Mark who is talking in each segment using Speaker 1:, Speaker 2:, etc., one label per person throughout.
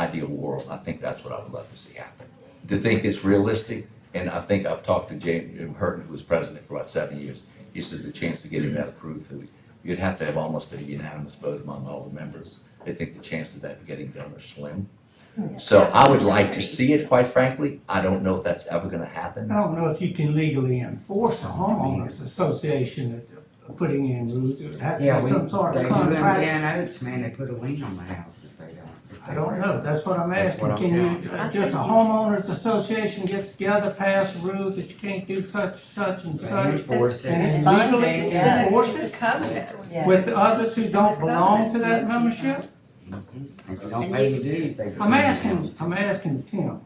Speaker 1: ideal world, I think that's what I would love to see happen. To think it's realistic, and I think I've talked to James Hurton, who was president for about seven years. He says the chance of getting that approved, that you'd have to have almost a unanimous vote among all the members. They think the chances of that getting done are slim. So I would like to see it, quite frankly. I don't know if that's ever gonna happen.
Speaker 2: I don't know if you can legally enforce a homeowners association that are putting in rules, it would have
Speaker 3: Yeah,
Speaker 2: to be
Speaker 3: we,
Speaker 2: some sort
Speaker 3: they
Speaker 2: of
Speaker 3: do them
Speaker 2: contract.
Speaker 3: down Oaks, man, they put a lien on the house if they don't. if they
Speaker 2: I don't
Speaker 3: break
Speaker 2: know,
Speaker 3: it.
Speaker 2: that's what I'm
Speaker 3: That's what
Speaker 2: asking,
Speaker 3: I'm
Speaker 2: can
Speaker 3: telling
Speaker 2: you,
Speaker 3: you.
Speaker 2: uh, just a homeowners association gets together, pass rules that you can't do such, such and
Speaker 3: They
Speaker 2: such,
Speaker 3: enforce it.
Speaker 2: and
Speaker 4: binding,
Speaker 2: legally
Speaker 4: yes.
Speaker 2: enforce it
Speaker 5: It's a covenant.
Speaker 4: Yes.
Speaker 2: with others who don't belong to that
Speaker 5: Yes.
Speaker 2: membership?
Speaker 3: If you don't pay your dues, they.
Speaker 2: I'm asking, I'm asking Tim.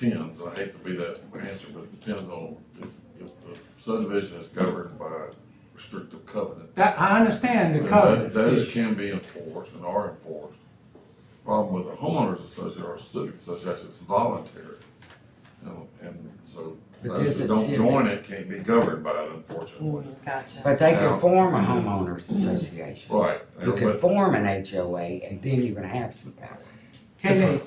Speaker 6: depends, I hate to be that answer, but it depends on if, if the subdivision is governed by restrictive covenants.
Speaker 2: That, I understand the
Speaker 6: then
Speaker 2: covenant.
Speaker 6: tho- Those can be enforced and are enforced. Problem with a homeowners association or civic association, it's voluntary. You know, And so
Speaker 3: But
Speaker 6: those
Speaker 3: this
Speaker 6: who
Speaker 3: is
Speaker 6: don't
Speaker 3: civic.
Speaker 6: join it can't be governed by it unfortunately.
Speaker 4: Gotcha.
Speaker 3: But they
Speaker 6: Yeah.
Speaker 3: could form a homeowners association.
Speaker 6: Right.
Speaker 3: You
Speaker 6: and
Speaker 3: could
Speaker 6: but-
Speaker 3: form an HOA and then you're gonna have some power.
Speaker 2: Can they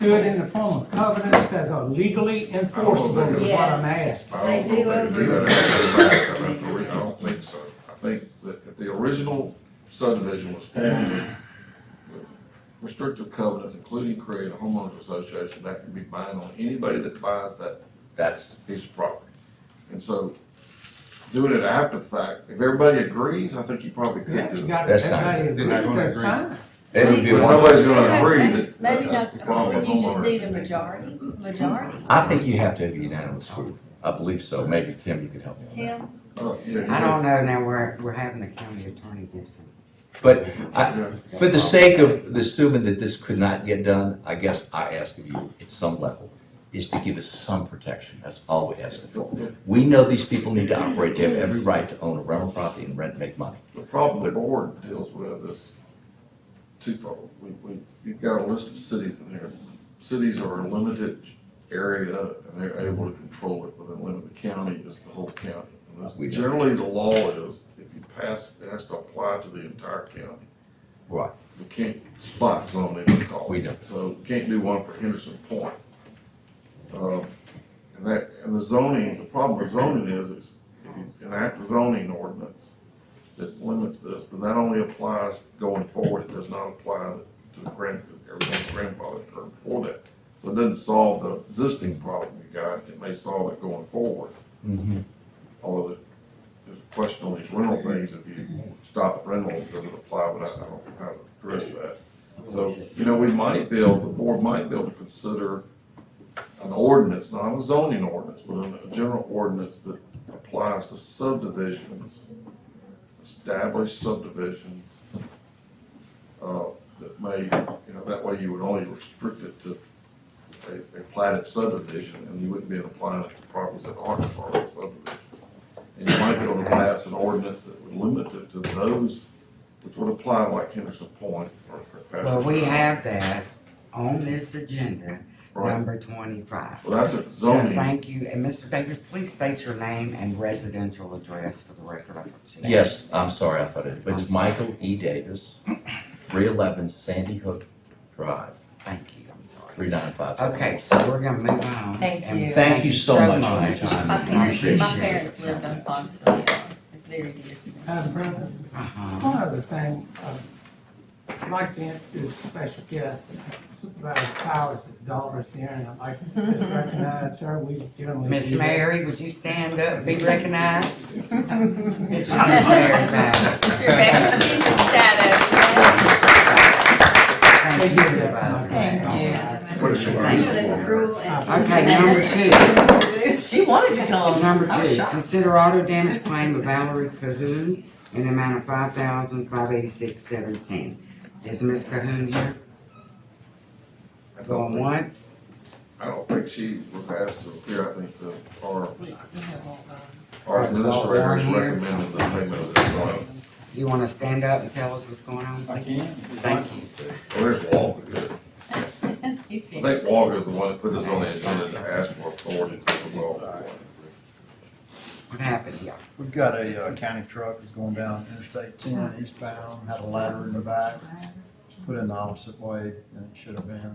Speaker 2: do it in the form of covenants that are legally enforceable, is what I'm asking?
Speaker 6: I don't
Speaker 5: They
Speaker 6: know
Speaker 5: do
Speaker 6: if they can do
Speaker 5: over-
Speaker 6: that after the fact, I'd have to re- I don't think so. I think that if the original subdivision was formed with with restrictive covenants, including creating a homeowners association, that can be binding on anybody that buys that
Speaker 1: That's,
Speaker 6: piece of property. And so doing it after the fact, if everybody agrees, I think you probably could
Speaker 2: Yeah,
Speaker 6: do
Speaker 2: you
Speaker 6: it.
Speaker 2: got
Speaker 1: That's
Speaker 2: everybody
Speaker 1: fine.
Speaker 2: agree,
Speaker 6: They're not gonna
Speaker 2: that's
Speaker 6: agree.
Speaker 2: fine.
Speaker 1: it would be
Speaker 6: But
Speaker 1: one.
Speaker 6: nobody's gonna agree that.
Speaker 5: Maybe
Speaker 6: that's
Speaker 5: not,
Speaker 6: the problem
Speaker 5: would
Speaker 6: with
Speaker 5: you just
Speaker 6: homeowners.
Speaker 5: need a majority, majority?
Speaker 1: I think you have to have unanimous group. I believe so. Maybe Tim, you could help me on that.
Speaker 5: Tim,
Speaker 6: Oh, yeah,
Speaker 3: I don't know, now we're, we're having the county attorney give some.
Speaker 1: But I- For the sake of assuming that this could not get done, I guess I ask of you at some level is to give us some protection. That's all we ask for.
Speaker 6: yeah.
Speaker 1: We know these people need to operate. They have every right to own a rental property and rent, and make money.
Speaker 6: The problem the board deals with is twofold. We, we, you've got a list of cities in there. Cities are a limited area and they're able to control it within the limit. The county is the whole county. And that's-
Speaker 1: We know.
Speaker 6: Generally, the law is if you pass, it has to apply to the entire county.
Speaker 1: Right.
Speaker 6: We can't spot zone any call.
Speaker 1: We don't.
Speaker 6: So can't do one for Henderson Point. Um, And that, and the zoning, the problem with zoning is, is if you enact a zoning ordinance that limits this, then that only applies going forward, it does not apply to the grand, everything's grandfathered or before that. So it doesn't solve the existing problem you got, it may solve it going forward.
Speaker 3: Mm-hmm.
Speaker 6: Although there's a question on these rental things, if you stop rental, does it apply, but I I don't know how to address that. So, you know, we might be able, the board might be able to consider an ordinance, not a zoning ordinance, but a- a general ordinance that applies to subdivisions, established subdivisions, uh, that may, you know, that way you would only restrict it to a, a platted subdivision, and you wouldn't be applying it to properties that aren't part of the subdivision. And you might be able to pass an ordinance that would limit it to those, which would apply like Henderson Point or. Pastor
Speaker 3: Well, we
Speaker 6: Brown.
Speaker 3: have that on this agenda,
Speaker 6: Right,
Speaker 3: number twenty-five.
Speaker 6: well, that's a
Speaker 3: So
Speaker 6: zoning,
Speaker 3: thank you, and Mr. Davis, please state your name and residential address for the record. I appreciate it.
Speaker 1: Yes, I'm sorry, I thought it, but
Speaker 3: I'm
Speaker 1: it's
Speaker 3: sorry.
Speaker 1: Michael E. Davis, three eleven Sandy Hook Drive,
Speaker 3: Thank you, I'm sorry.
Speaker 1: three nine five.
Speaker 3: Okay, so we're gonna move on.
Speaker 4: Thank
Speaker 3: and
Speaker 4: you.
Speaker 1: Thank you so much for your time.
Speaker 5: my parents,
Speaker 3: Appreciate
Speaker 5: my
Speaker 3: it.
Speaker 5: parents lived on Foxville, it's very dear to me.
Speaker 2: Madam President?
Speaker 3: Uh-huh.
Speaker 2: One other thing, uh, I'd like to introduce a special guest, Supervisor Powers, his daughter's here, and I'd like to recognize her, we generally.
Speaker 3: Miss
Speaker 2: do that.
Speaker 3: Mary, would you stand up, be recognized? This is Miss Mary Bowden.
Speaker 5: She's your shadow.
Speaker 2: They
Speaker 3: Thank
Speaker 2: do
Speaker 3: you,
Speaker 2: that for my
Speaker 3: Supervisor.
Speaker 2: granddaughter.
Speaker 5: I know that's cruel and.
Speaker 3: Okay, number two.
Speaker 4: She wanted to
Speaker 3: Oh,
Speaker 4: come.
Speaker 3: Number
Speaker 4: I was
Speaker 3: two,
Speaker 4: shocked.
Speaker 3: consider auto damage claim of Valerie Cahoon in the amount of five thousand five eighty-six seventeen. Is Miss Cahoon here?
Speaker 6: I don't
Speaker 3: Going
Speaker 6: think,
Speaker 3: once?
Speaker 6: I don't think she was asked to appear, I think the, our,
Speaker 3: Or
Speaker 5: um,
Speaker 6: our
Speaker 3: it's Walt
Speaker 6: administrator
Speaker 3: Warren
Speaker 6: is
Speaker 3: here.
Speaker 6: recommending the payment of this bond.
Speaker 3: You wanna stand up and tell us what's going on?
Speaker 7: I
Speaker 3: please?
Speaker 7: can.
Speaker 3: Thank you.
Speaker 6: Well, there's Walker, good.
Speaker 5: He's
Speaker 6: I
Speaker 5: very-
Speaker 6: think Walker is the one that put this on the agenda to ask for authority to the law.
Speaker 3: What happened here?
Speaker 7: We've got a uh, county truck that's going down Interstate ten eastbound, had a ladder in the back. put in the opposite way than it should have been.